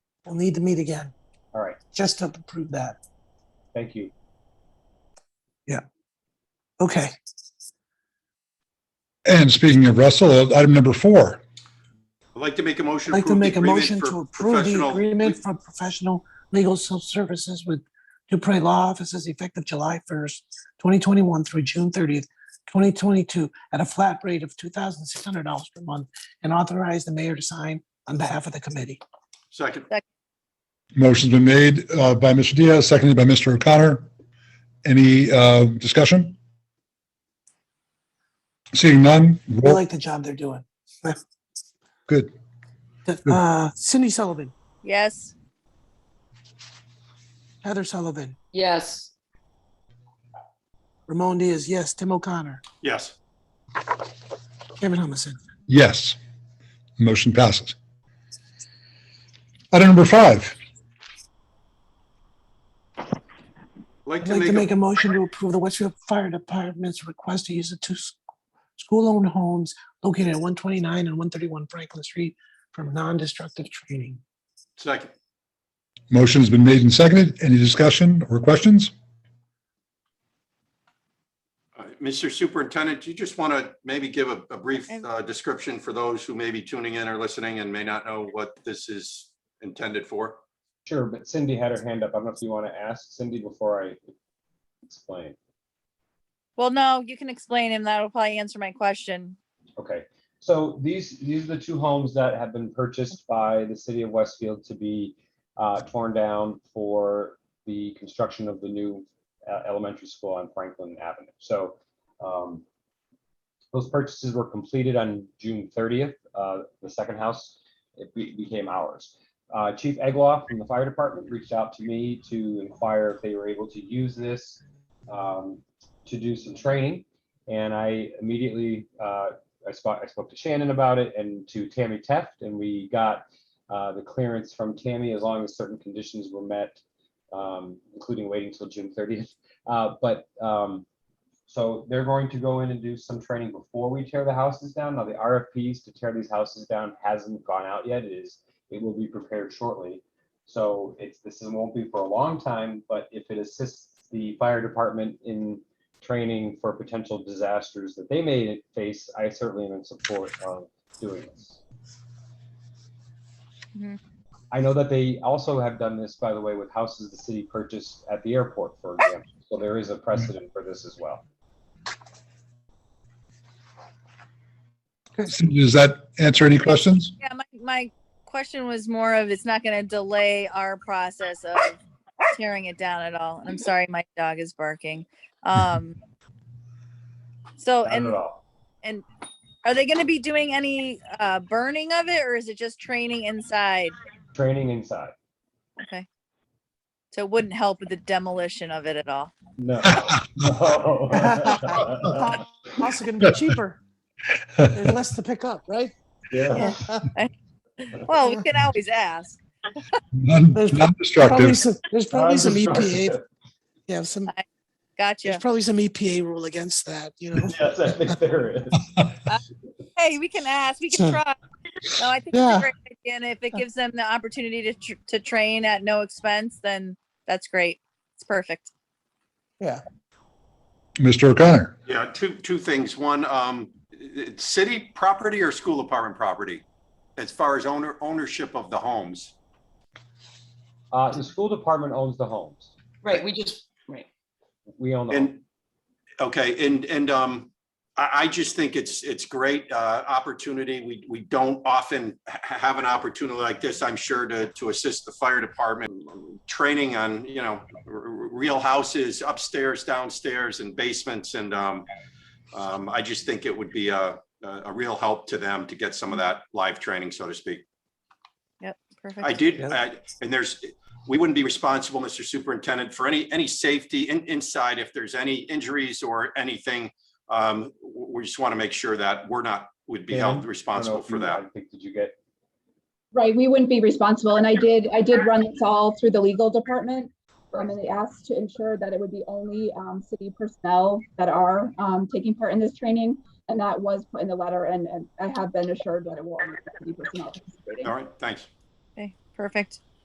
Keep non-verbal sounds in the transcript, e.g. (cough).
We'll need to meet again, All right, just to approve that. thank you. Okay, And speaking of Russell, item number four, I'd like to make a motion. I'd like to approve the make a agreement motion for to approve the professional- agreement for professional legal services with Dupre Law Offices effective July first, twenty twenty-one through June thirtieth, twenty twenty-two at a flat rate of two thousand six hundred dollars per month and authorize the mayor to sign on behalf of the committee. Second, motion's been made uh, by Mr. Diaz, seconded by Mr. O'Connor. Any uh, discussion? Seeing none, I roll, like the job they're doing. good. Uh, Cindy Sullivan, Yes. Heather Sullivan, yes, Ramon Diaz, yes, Tim O'Connor, yes. Kevin Humison. Yes. Motion passes. Item number five, I'd like I'd to like to make make, a a- motion to approve the Westfield Fire Department's request to use the two s- school-owned homes located at one twenty-nine and one thirty-one Franklin Street from non-destructive training. second, motion's been made and seconded. Any discussion or questions? Uh, Mr. Superintendent, do you just want to maybe give a, a brief I'm- uh, description for those who may be tuning in or listening and may not know what this is intended for? Sure, but Cindy had her hand up. I don't know if you want to ask Cindy before I explain. Well, no, you can explain and that'll probably answer my question. Okay, so these, these are the two homes that have been purchased by the city of Westfield to be uh, torn down for the construction of the new uh, elementary school on Franklin Avenue. So um, those purchases were completed on June thirtieth. Uh, The second house, it be- became ours. Uh, Chief Egloff from the fire department reached out to me to inquire if they were able to use this um, to do some training. And I immediately uh, I spoke, I spoke to Shannon about it and to Tammy Teft, and we got uh, the clearance from Tammy as long as certain conditions were met, um, including waiting till June thirtieth. Uh, but um, so they're going to go in and do some training before we tear the houses down. Now the RFPs to tear these houses down hasn't gone out yet. It is it will be prepared shortly. So it's this is, won't be for a long time, but if it assists the fire department in training for potential disasters that they may face, I certainly am in support of doing this. Mhm. I know that they also have done this, by the way, with houses the city purchased at the airport, for example. So there is a precedent for this as well. Does that answer any questions? Yeah, my, my question was more of it's not gonna delay our process of tearing it down at all. I'm sorry, my dog is barking. Um. So, Not at Oh, and all. are they gonna be doing any uh burning of it or is it just training inside? Training inside. So it wouldn't help with the demolition of it at all. No. (laughs) No. Also gonna (laughs) be cheaper. There's less to pick up, right? Yeah. Well, we can always ask. Non- There's Probably Non-destructive. some, there's probably some EPA, Unobstructed. yeah, some, Gotcha. there's probably some EPA rule against that, you know? (laughs) Yes, I think there is. hey, we can ask, we Sure. can try. No, I think it's Yeah. a great idea, and if it gives them the opportunity to tr- to train at no expense, then that's great. It's perfect. Mr. O'Connor, Yeah, two, two things. One, um, i- i- city property or school apartment property? As far as owner, ownership of the homes? Uh, the school department owns the homes. right, we just, right. We own the homes. And, okay, and, and, um, I, I just think it's, it's great, uh, opportunity. We, we don't often ha- have an opportunity like this, I'm sure, to, to assist the fire department. Training on, you know, r- r- real houses upstairs, downstairs and basements and, um, um, I just think it would be a, a, a real help to them to get some of that live training, so to speak. Perfect. I did, Yeah. I- and there's, we wouldn't be responsible, Mr. Superintendent, for any, any safety in, inside if there's any injuries or anything. Um, w- we just want to make sure that we're not, would be Dan, I don't held know responsible if for you- that. I think, did you get, Right, we wouldn't be responsible, and I did, I did run this all through the legal department. Um, and they asked to ensure that it would be only, um, city personnel that are, um, taking part in this training. And that was put in the letter, and, and I have been assured that it will only be city personnel. participating. All right, thanks. Okay, perfect.